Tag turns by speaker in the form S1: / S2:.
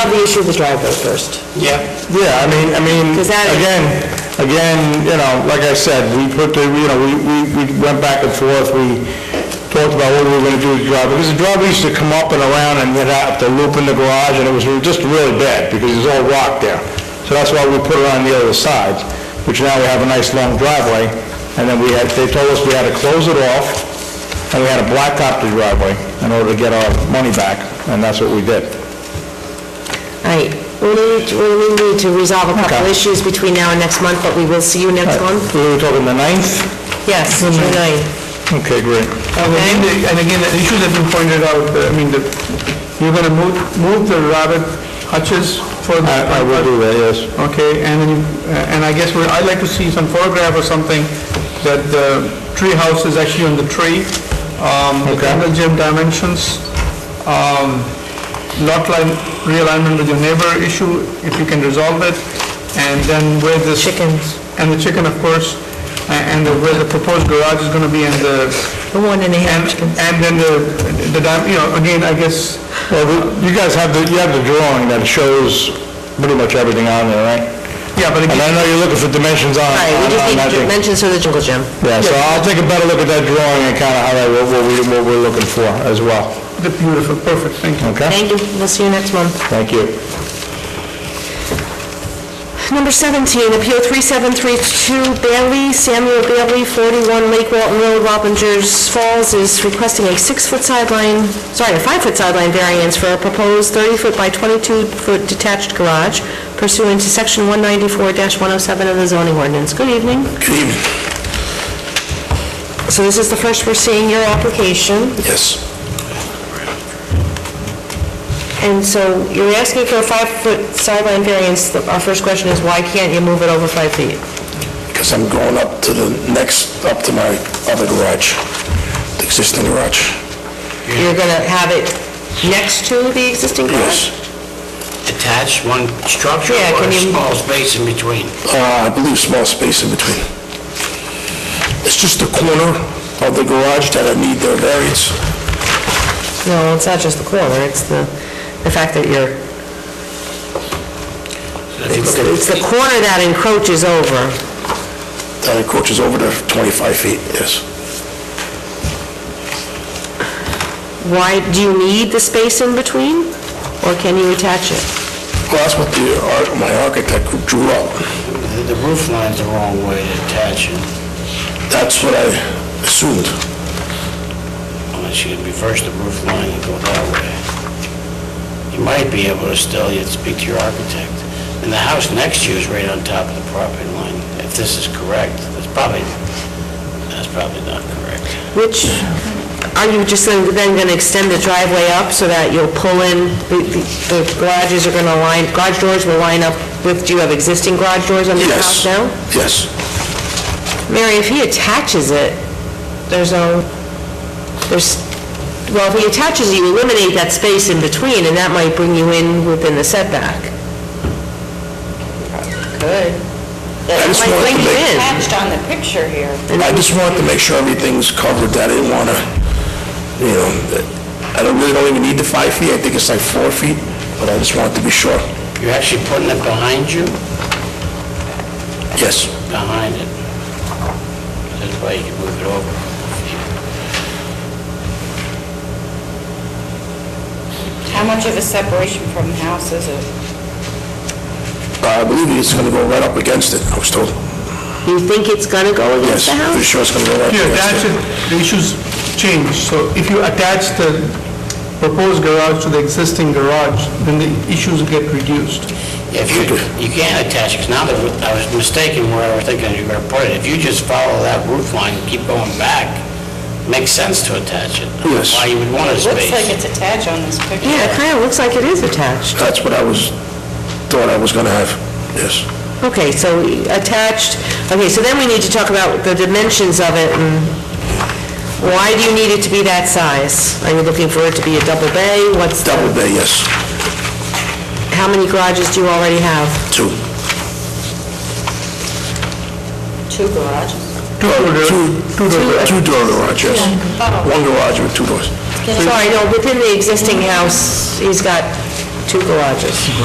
S1: the issue of the driveway first.
S2: Yeah.
S3: Yeah, I mean, I mean,
S1: Because that is-
S3: again, again, you know, like I said, we put the, you know, we, we, we went back and forth, we talked about what we were gonna do with the driveway, because the driveway used to come up and around and then have to loop in the garage, and it was just really bad, because it was all rock there. So that's why we put it on the other side, which now we have a nice long driveway, and then we had, they told us we had to close it off, and we had to blacktop the driveway in order to get our money back, and that's what we did.
S1: All right, we need, we need to resolve a couple
S3: Okay.
S1: issues between now and next month, but we will see you next month.
S3: We were talking the ninth?
S1: Yes, June 9th.
S3: Okay, great.
S2: And the- and again, the issues have been pointed out, uh, I mean, the- you're going to move move the Robert Hutchins for the...
S3: I I will do that, yes.
S2: Okay, and, then, uh, and I guess we- I'd like to see some photograph or something that the tree house is actually on the tree, um, the
S3: Okay.
S2: jungle gym dimensions, um, lot line realignment with your neighbor issue, if you can resolve it, and then where this...
S1: Chickens.
S2: And the chicken, of course, a- and the- where the proposed garage is gonna be and the,
S1: The one and a
S2: and, and then the, the, di- you know, again, I guess,
S3: Uh, Well, we- you guys have the, you have the drawing that shows pretty much everything on there, right?
S2: yeah, but
S3: And
S2: again,
S3: I know you're looking for dimensions on, on
S1: All right, we just
S3: on
S1: need
S3: that
S1: to
S3: thing.
S1: mention to the jungle gym.
S3: Yeah, so I'll take a better look at that drawing and kind of highlight what, what we, what we're looking for as well,
S2: the beautiful, perfect, thank you.
S3: okay?
S1: Thank you, we'll see you next month.
S3: Thank you.
S1: Number 17, Appeal 3732 Bailey, Samuel Bailey, 41 Lake Walton Road, Wappingers Falls, is requesting a six-foot sideline, sorry, a five-foot sideline variance for a proposed 30-foot by 22-foot detached garage pursuant to Section 194-107 of the zoning ordinance. Good evening. Good evening. So this is the first we're seeing your application,
S4: Yes.
S1: and so you're asking for a five-foot sideline variance. Our first question is, why can't you move it over five feet?
S4: Because I'm going up to the next, up to my other garage, the existing garage.
S1: You're going to have it next to the existing garage?
S4: Yes.
S5: attached one structure
S1: Yeah,
S5: or
S1: can
S5: a
S1: you-
S5: small space in between?
S4: Uh, I believe small space in between. It's just the corner of the garage that I need the variance.
S1: No, it's not just the corner, it's the, the fact that you're,
S5: If you
S1: it's
S5: look at
S1: it's the
S5: it,
S1: corner that encroaches over.
S4: That encroaches over the 25 feet, yes.
S1: Why, do you need the space in between, or can you attach it?
S4: Well, that's what the, ar- my architect drew up.
S5: the- The roof line's the wrong way to attach it,
S4: That's what I assumed.
S5: unless you reverse the roof line and go that way. You might be able to still, you'd speak to your architect. And the house next to you is right on top of the property line, if this is correct. That's probably, that's probably not correct.
S1: Which, are you just then then gonna extend the driveway up so that you'll pull in, the- the the garages are gonna line, garage doors will line up with, do you have existing garage doors on your house
S4: Yes.
S1: now?
S4: Yes.
S1: Mary, if he attaches it, there's no, there's, well, if he attaches it, you eliminate that space in between, and that might bring you in within the setback. Could.
S4: I
S1: That
S4: just
S1: might
S4: wanted
S1: bring
S4: to
S1: you in.
S4: make-
S6: attached on the picture here.
S4: I just wanted to make sure everything's covered, that I didn't want to, you know, that- I don't really don't even need the five feet, I think it's like four feet, but I just wanted to be sure.
S5: You're actually putting it behind you,
S4: Yes.
S5: behind it. That's why you can move it over.
S6: How much of a separation from the house is it?
S4: Uh, I believe it's going to go right up against it, I was told.
S1: You think it's gonna go against the
S4: Yes, pretty
S1: house?
S4: sure it's going to go right
S2: If
S4: up
S2: you attach
S4: against it.
S2: it, the issues change, so if you attach the proposed garage to the existing garage, then the issues get reduced.
S5: If you, you can't attach, because now that I was mistaken where I was thinking you were going to put it, if you just follow that roof line, and keep going back, makes sense to attach it.
S4: Yes.
S5: Why you would want a
S6: Looks like
S5: space.
S6: it's attached on this picture.
S1: Yeah, it kinda looks like it is attached.
S4: That's what I was, thought I was going to have, yes.
S1: Okay, so attached, okay, so then we need to talk about the dimensions of it, and why do you need it to be that size? Are you looking for it to be a double bay? What's the,
S4: Double bay, yes,
S1: how many garages do you already have?
S4: two.
S6: Two garages.
S4: Two door. Two door garage, yes. One garage with two doors.
S1: Sorry, no, within the existing house, he's got two garages.